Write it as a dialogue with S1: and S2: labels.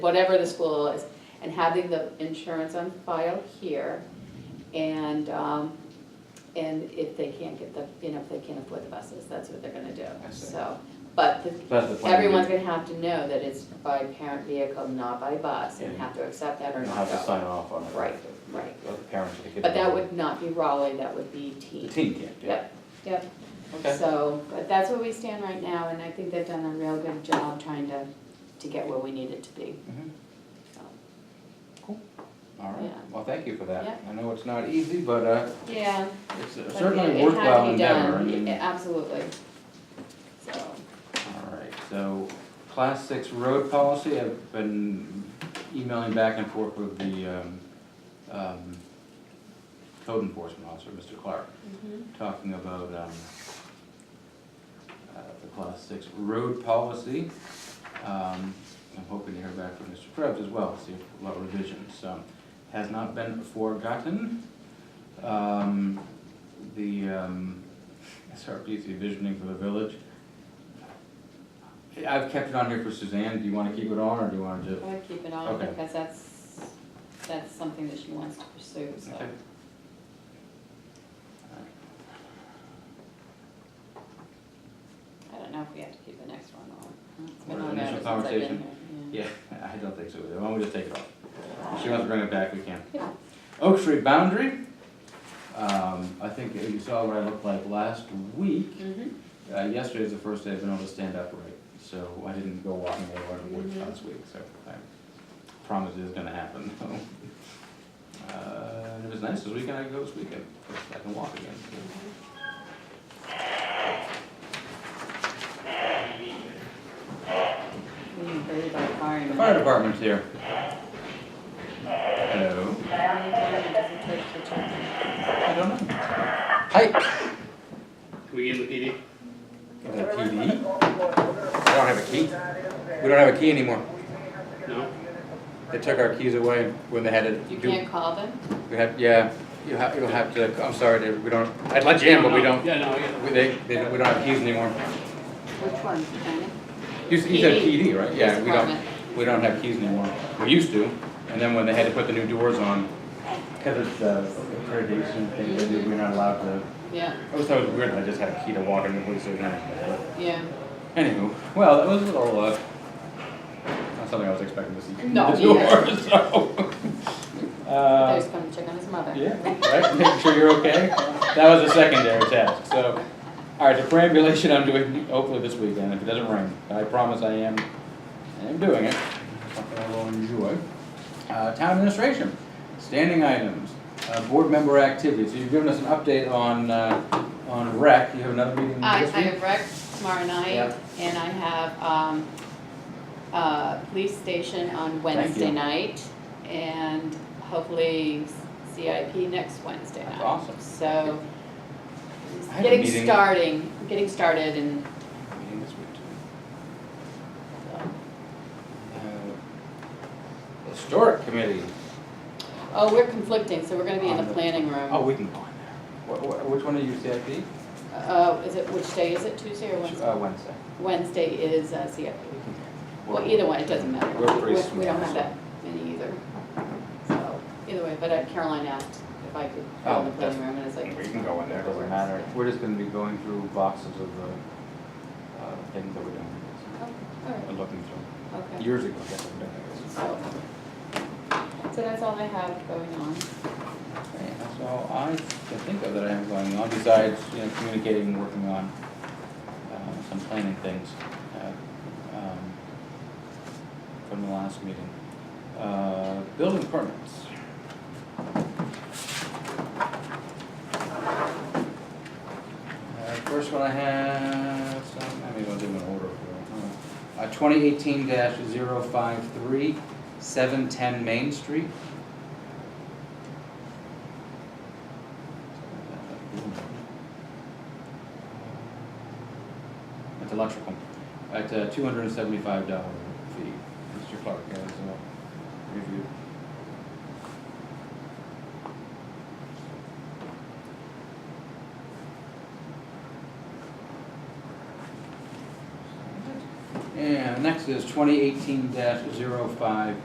S1: whatever the school is, and having the insurance on file here. And, um, and if they can't get the, you know, if they can't afford the buses, that's what they're gonna do,
S2: I see.
S1: so. But the-
S2: But the plan.
S1: everyone's gonna have to know that it's by parent vehicle, not by bus, and
S2: Yeah.
S1: have to accept that or
S2: You'll
S1: not
S2: have to
S1: go.
S2: sign off on it.
S1: Right, right.
S2: Or the parents of the kid.
S1: But that would not be Raleigh, that would be
S2: The
S1: T.
S2: team can't, yeah.
S1: Yep, yep.
S2: Okay.
S1: So, but that's where we stand right now, and I think they've done a real good job trying to, to get where we need it to be,
S2: Mhm.
S1: so.
S2: All right,
S1: Yeah.
S2: well, thank you for that.
S1: Yeah.
S2: I know it's not easy, but uh,
S1: Yeah.
S2: it's
S1: but it-
S2: certainly worthwhile endeavor. I
S1: It had to be
S2: mean,
S1: done, Yeah, absolutely. So,
S2: All right, so class six road policy, I've been emailing back and forth with the um, um, code enforcement officer, Mr. Clark, Mm-hmm. talking about um, uh, the class six road policy. Um, I'm hoping to hear back from Mr. Krebs as well, see if a lot of revisions. um, Has not been forgotten. Um, The um, SRPC visioning for the village. I've kept it on here for Suzanne, do you wanna keep it on, or do you wanna
S1: I
S2: just?
S1: would keep it on
S2: Okay.
S1: because that's, that's something that she wants to pursue, so.
S2: Okay.
S1: I don't know if we have to keep the next one on. It's
S2: Or
S1: been
S2: the
S1: on there
S2: initial
S1: since I've been
S2: conversation.
S1: here,
S2: Yeah, I don't think so, either. why don't we just take it off? If she wants to bring it back, we can.
S1: Yeah.
S2: Oak Street boundary, um, I think you saw what I looked like last week.
S1: Mhm.
S2: Uh, yesterday was the first day I've been able to stand upright, so I didn't go walking anywhere in the woods
S1: Mhm.
S2: last week, so I promise it's gonna happen, though. Uh, and it was nice this weekend, I could go this weekend, I can walk again.
S1: We didn't worry about firing.
S2: The fire department's here. Hello, I don't know. Hi.
S3: Can we get the PD?
S2: Got a key? I don't have a key. We don't have a key anymore.
S3: No?
S2: They took our keys away when they had to
S1: You
S2: do.
S1: can't call them?
S2: We had, yeah, you have, you'll have to, I'm sorry, David, we don't, I'd let you in, but we don't,
S3: Yeah, no, I get it.
S2: we, they, they, don't- we don't have keys anymore.
S1: Which one, Janet?
S2: You, s- you said
S1: PD.
S2: PD, right? Yeah,
S1: Police
S2: we don't,
S1: department.
S2: we don't have keys anymore. We used to, and then when they had to put the new doors on, cause it's, uh, accreditation thing, they do, we're not allowed to.
S1: Yeah,
S2: I always thought it was weird, that I just had a key to walk in the police station, but.
S1: yeah.
S2: Anywho, well, that was a little, uh, not something I was expecting to see. from
S1: No,
S2: the
S1: me
S2: door,
S1: neither.
S2: so.
S1: They
S2: Uh,
S1: just come to check on his mother.
S2: yeah, right, making sure you're okay. That was a secondary task, so, all right, the perambulation I'm doing hopefully this weekend, if it doesn't rain. I promise I am, I am doing it, something I will enjoy. Uh, town administration, standing items, uh, board member activities. So You've given us an update on, uh, on rec. You have another meeting
S1: I,
S2: this
S1: Uh, I
S2: week?
S1: have rec tomorrow night,
S2: Yep.
S1: and I have, um, uh, police station on Wednesday
S2: you.
S1: night, and hopefully CIP next Wednesday night.
S2: That's awesome.
S1: So,
S2: I have a
S1: getting
S2: meeting-
S1: starting, getting started and,
S2: Meeting this week too. Uh, Historic committee.
S1: oh, we're conflicting, so we're gonna be in
S2: On
S1: the
S2: the-
S1: planning
S2: Oh,
S1: room.
S2: we can go on there. Wh- wh- Which one are you, CIP?
S1: Uh, is it, which day is it, Tuesday or Wednesday?
S2: Uh, Wednesday.
S1: Wednesday is uh, CIP. Well, either way, it doesn't matter.
S2: We're pretty
S1: We- We don't
S2: small,
S1: have
S2: so-
S1: that many either. So, either way, but uh, Caroline asked if I could go
S2: Oh,
S1: in the
S2: that's-
S1: planning room, and it's like.
S2: We can go in there, it doesn't matter. We're just gonna be going through boxes of the, uh, things that we're doing,
S1: Oh,
S2: We're
S1: all
S2: looking
S1: right,
S2: through.
S1: okay.
S2: Years ago, I guess I've done this.
S1: So, so that's all I have going on.
S2: Okay, That's all I can think of that I have going on, besides, you know, communicating and working on, uh, some planning things, uh, um, from the last meeting. Uh, building permits. Uh, First one I have, so I mean, I'll do them in order for, uh, twenty eighteen 53 710 Main Street. It's electrical, at a two hundred and seventy-five dollar fee, Mr. Clark has a review. And Now, next is twenty eighteen 5